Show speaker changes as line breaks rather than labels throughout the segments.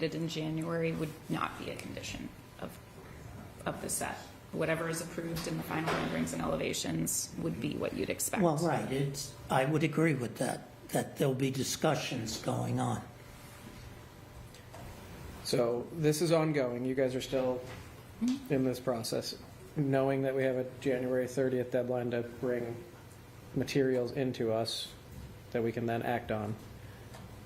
did in January would not be a condition of, of the set. Whatever is approved in the final renderings and elevations would be what you'd expect.
Well, right, it's, I would agree with that, that there'll be discussions going on.
So this is ongoing. You guys are still in this process, knowing that we have a January 30th deadline to bring materials into us that we can then act on.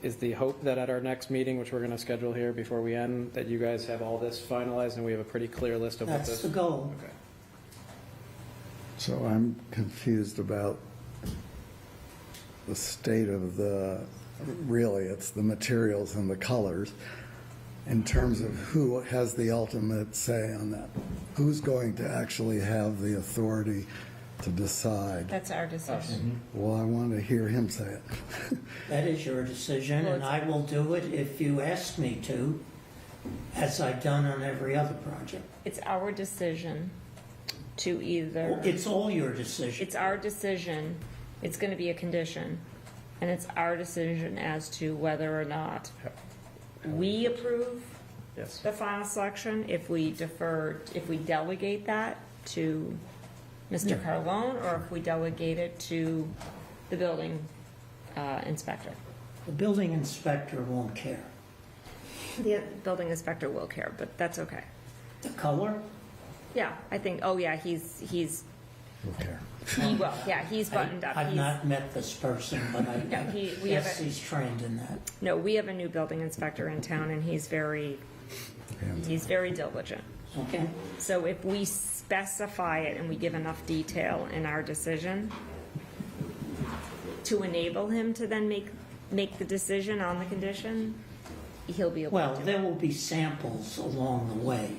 Is the hope that at our next meeting, which we're going to schedule here before we end, that you guys have all this finalized and we have a pretty clear list of what
That's
this?
the goal.
Okay.
So I'm confused about the state of the, really, it's the materials and the colors in terms of who has the ultimate say on that. Who's going to actually have the authority to decide?
That's our decision.
Well, I want to hear him say it.
That is your decision, and I will do it if you ask me to, as I've done on every other project.
It's our decision to either,
It's all your decision.
it's our decision, it's going to be a condition, and it's our decision as to whether or not we approve
Yes.
the final selection, if we defer, if we delegate that to Mr. Carlone, or if we delegate it to the building uh, inspector.
The building inspector won't care.
The building inspector will care, but that's okay.
The color,
Yeah, I think, oh yeah, he's, he's,
Okay.
he will, yeah, he's
I-
buttoned up.
I've
He's-
not met this person, but I
Yeah, he-
I
we have
guess
a-
he's trained in that.
No, we have a new building inspector in town, and he's very, he's very diligent.
Okay.
So if we specify it and we give enough detail in our decision to enable him to then make, make the decision on the condition, he'll be able
Well,
to do it.
there will be samples along the way,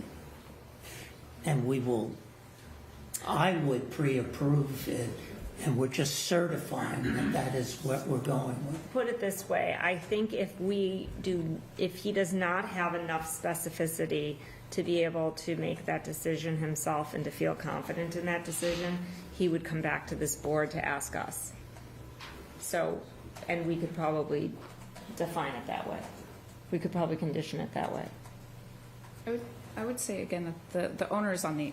and we will, I would pre-approve it, and we're just certifying that that is what we're going with.
Put it this way, I think if we do, if he does not have enough specificity to be able to make that decision himself and to feel confident in that decision, he would come back to this board to ask us. So, and we could probably define it that way. We could probably condition it that way.
I would, I would say again that the, the owners on the,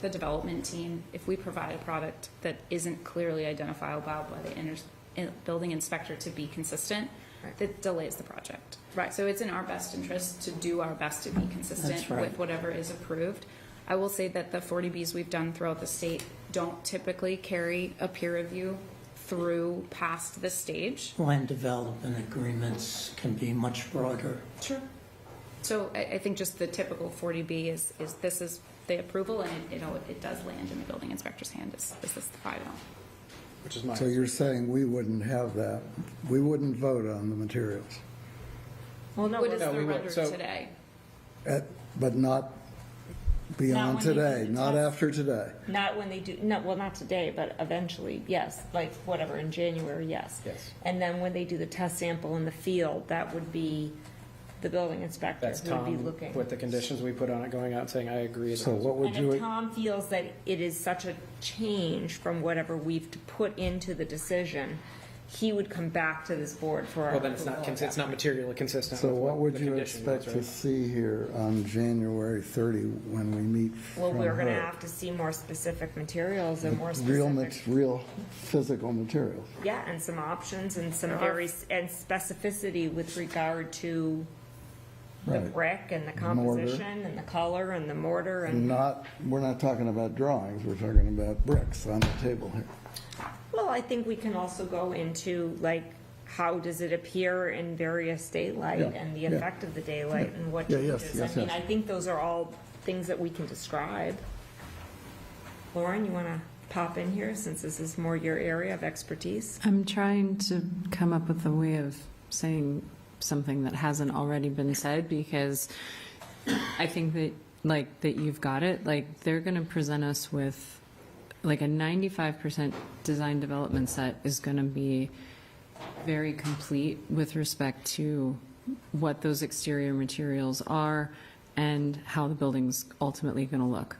the development team, if we provide a product that isn't clearly identifiable by the inter- in- building inspector to be consistent,
Right.
that delays the project.
Right.
So it's in our best interest to do our best to be consistent
That's right.
with whatever is approved. I will say that the 40Bs we've done throughout the state don't typically carry a peer review through past this stage.
Land development agreements can be much broader.
Sure. So I, I think just the typical 40B is, is this is the approval and it, you know, it does land in the building inspector's hand. Is, is this the final?
Which is my.
So you're saying we wouldn't have that, we wouldn't vote on the materials,
Well, no,
What is
no,
the
we will.
render
So-
today?
At- but not
when
beyond
you do
today,
the
not
test.
after today.
Not when they do, no, well, not today, but eventually, yes, like whatever, in January, yes.
Yes.
And then when they do the test sample in the field, that would be the building inspector
That's
who would be
Tom
looking.
with the conditions we put on it, going out saying, I agree.
So what would
And if
you,
Tom feels that it is such a change from whatever we've to put into the decision, he would come back to this board for.
Well, then it's
approval
not,
of
cons-
that.
it's not materially consistent.
so
with
what would
the
you
condition was,
expect to
right?
see here on January 30 when we meet
Well,
from
we're gonna
her?
have to see more specific materials and more
Real, mat-
specific.
real physical materials.
Yeah, and some options and some very, and specificity with regard to the
Right.
brick and the
Mortar. Mm.
composition and the color and the mortar and,
Not, we're not talking about drawings, we're talking about bricks on the table here.
well, I think we can also go into like, how does it appear in various daylight
Yeah,
and the
yeah.
effect of the daylight and what
Yeah, yes,
changes? I
yes,
mean,
yes.
I think those are all things that we can describe. Lauren, you wanna pop in here since this is more your area of expertise?
I'm trying to come up with a way of saying something that hasn't already been said because I think that like that you've got it. Like they're going to present us with like a 95% design development set is going to be very complete with respect to what those exterior materials are and how the building's ultimately going to look.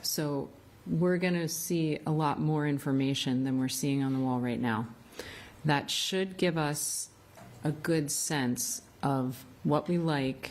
So we're going to see a lot more information than we're seeing on the wall right now. That should give us a good sense of what we like,